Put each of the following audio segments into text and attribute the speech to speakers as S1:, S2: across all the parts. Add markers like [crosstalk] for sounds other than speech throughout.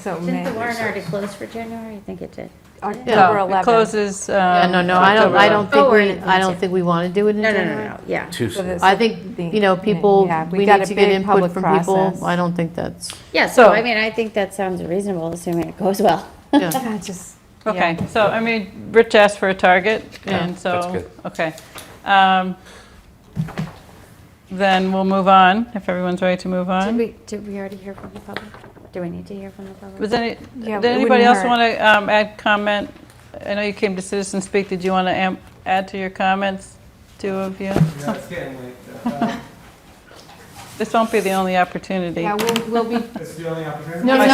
S1: So
S2: Didn't the
S1: May,
S2: warrant already close for January? I think it did.
S1: October
S3: No, Oh, it
S1: 11th.
S3: Closes.
S4: Yeah,
S3: um,
S4: no, no, I don't,
S3: October
S4: I don't
S3: 11th.
S4: think
S2: Oh, we're
S4: we,
S2: in
S4: I don't
S2: advance.
S4: think we want to do it in
S2: No, no, no,
S4: January.
S2: no, yeah.
S5: Too
S1: So
S5: soon.
S1: this-
S4: I think,
S1: The-
S4: you know, people,
S1: yeah, we
S4: we
S1: got
S4: need
S1: a
S4: to get
S1: big
S4: input
S1: public
S4: from people.
S1: process.
S4: I don't think that's,
S2: Yeah, so
S3: So-
S2: I mean, I think that sounds reasonable, assuming it goes well.
S4: yeah.
S1: Yeah, just,
S3: Okay, so, I mean, Rich asked for a target, and
S5: that's
S3: so,
S5: good.
S3: okay. Um, Then we'll move on, if everyone's ready to move
S2: Did
S3: on.
S2: we, did we already hear from the public? Do we need to hear from the public?
S3: Was any,
S1: Yeah,
S3: did
S1: it
S3: anybody
S1: wouldn't
S3: else
S1: hurt.
S3: want to add comment? I know you came to Citizen Speak, did you want to add to your comments, two of you?
S6: Yeah, it's getting late. Uh,
S3: This won't be the only opportunity.
S1: yeah, we'll, [laughs] we'll be,
S6: It's the only opportunity.
S4: No, no, it's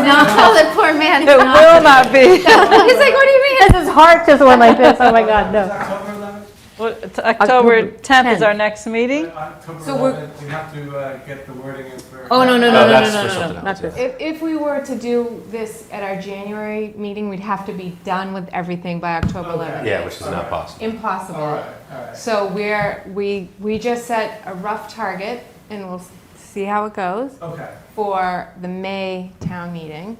S4: [laughs] not, tell that poor man.
S3: It will
S1: [laughs]
S3: not be.
S4: He's like, what do you mean? His heart just went like this, oh my God,
S6: It's
S4: no.
S6: October 11th?
S3: Well, it's October 10th is our next meeting.
S6: Uh, October
S1: So we're-
S6: 11th, we have to uh, get the wording in for.
S4: [laughs] Oh, no, no,
S5: No,
S4: no, no, no,
S5: that's for
S4: no, no,
S5: something
S4: no, not
S5: else, yeah.
S4: this.
S1: if, if we were to do this at our January meeting, we'd have to be done with everything by October
S6: Okay.
S1: 11th.
S5: Yeah, which is not possible.
S6: All
S1: Impossible.
S6: right, all right.
S1: So we're, we, we just set a rough target and we'll s- see how it goes
S6: Okay,
S1: for the May town meeting.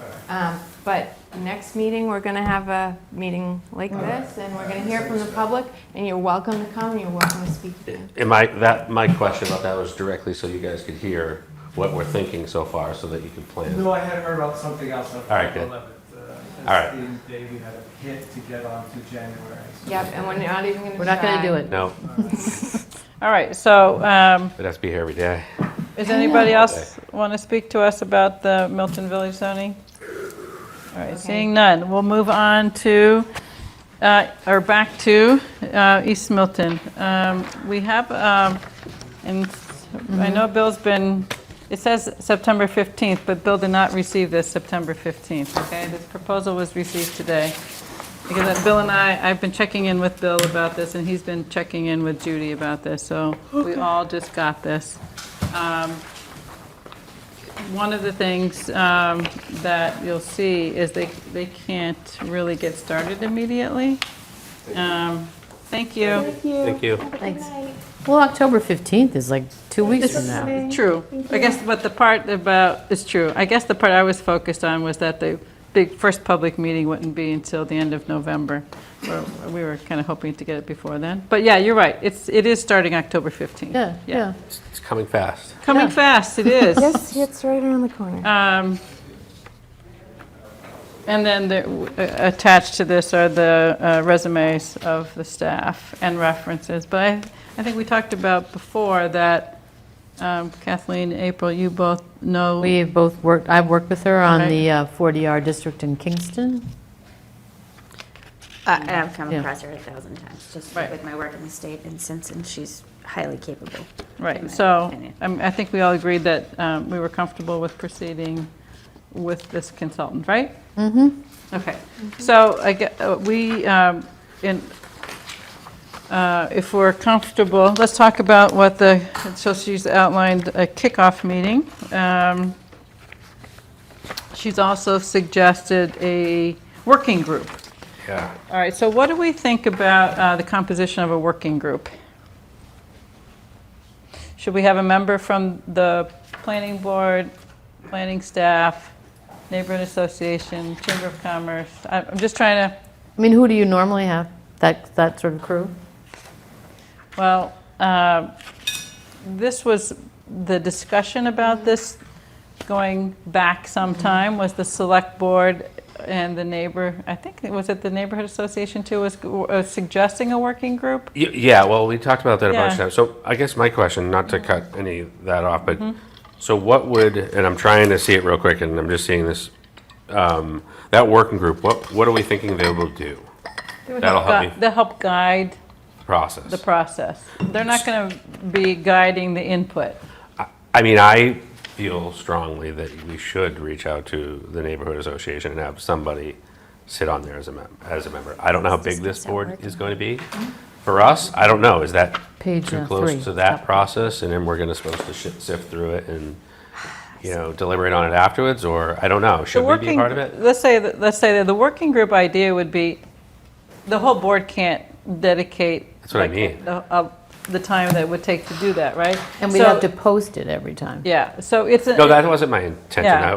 S6: all right.
S1: Um, But next meeting, we're going to have a meeting like this and we're going to hear from the public and you're welcome to come, you're welcome to speak again.
S5: And my, that, my question about that was directly so you guys could hear what we're thinking so far, so that you can plan.
S6: No, I had heard about something else on
S5: All right,
S6: October
S5: good.
S6: 11th. uh,
S5: All right.
S6: It's the day we had a hit to get on to January. so-
S1: Yep, and we're not even going to
S4: We're not gonna do it.
S5: No,
S3: All right, so um,
S5: it has to be here every day.
S3: does anybody else want to speak to us about the Milton Village zoning? All right, seeing none, we'll move on to, uh, or back to uh, East Milton. Um, We have, um, and I know Bill's been, it says September 15th, but Bill did not receive this September 15th, okay? This proposal was received today. Because Bill and I, I've been checking in with Bill about this, and he's been checking in with Judy about this, so we all just got this. Um, One of the things um, that you'll see is they, they can't really get started immediately. Um, Thank you.
S5: Thank you.
S4: Thanks. Well, October 15th is like two weeks from now.
S3: True. I guess, but the part about, it's true. I guess the part I was focused on was that the big, first public meeting wouldn't be until the end of November. Or We were kind of hoping to get it before then. But yeah, you're right. It's, it is starting October 15th.
S4: Yeah, yeah.
S5: It's it's coming fast.
S3: Coming fast, it is.
S1: Yes, it's right around the corner.
S3: Um, And then the- w- a- attached to this are the uh, resumes of the staff and references. But I, I think we talked about before that um, Kathleen, April, you both know.
S4: We have both worked, I've worked with her on
S3: Right.
S4: the uh, 40R district in Kingston.
S2: Uh, and I've come
S4: Yeah.
S2: across her a thousand times, just
S3: Right.
S2: with my work in the state and since, and she's highly capable. in my
S3: Right, so,
S2: opinion.
S3: I mean, I think we all agreed that um, we were comfortable with proceeding with this consultant, right? Mm-hmm. Okay, so I get, uh, we, um, in, uh, if we're comfortable, let's talk about what the, so she's outlined a kickoff meeting. Um, She's also suggested a working group.
S5: Yeah.
S3: All right, so what do we think about uh, the composition of a working group? Should we have a member from the planning board, planning staff, neighborhood association, chamber of commerce? I- I'm just trying to,
S4: I mean, who do you normally have, that, that sort of crew?
S3: well, uh, this was, the discussion about this going back some time was the select board and the neighbor, I think, it was it the neighborhood association too, was uh, suggesting a working group?
S5: Y- Yeah, well, we talked about that a bunch
S3: Yeah.
S5: of times. So I guess my question, not to cut any of that off, but, so what would, and I'm trying to see it real quick, and I'm just seeing this, um, that working group, what, what are we thinking they will do? That'll help me
S3: They'll help guide the
S5: process.
S3: process. They're not going to be guiding the input.
S5: I mean, I feel strongly that we should reach out to the neighborhood association and have somebody sit on there as a mem- as a member. I don't know how big this board is going to be.
S3: Mm-hmm.
S5: For us, I don't know, is that
S4: Page
S5: too
S4: uh, three.
S5: close to that process? And then we're gonna supposed to shi- sift through it and,
S3: [sighs]
S5: you know, deliberate on it afterwards, or, I don't know,
S3: The
S5: should we be
S3: working,
S5: part of it?
S3: let's say, that- let's say that the working group idea would be, the whole board can't dedicate.
S5: That's what I
S3: like,
S5: mean.
S3: The uh, the time that it would take to do that, right?
S4: And we
S3: So-
S4: have to post it every time.
S3: Yeah, so it's. a-
S5: No, that wasn't my intention.
S3: Yeah.
S5: I-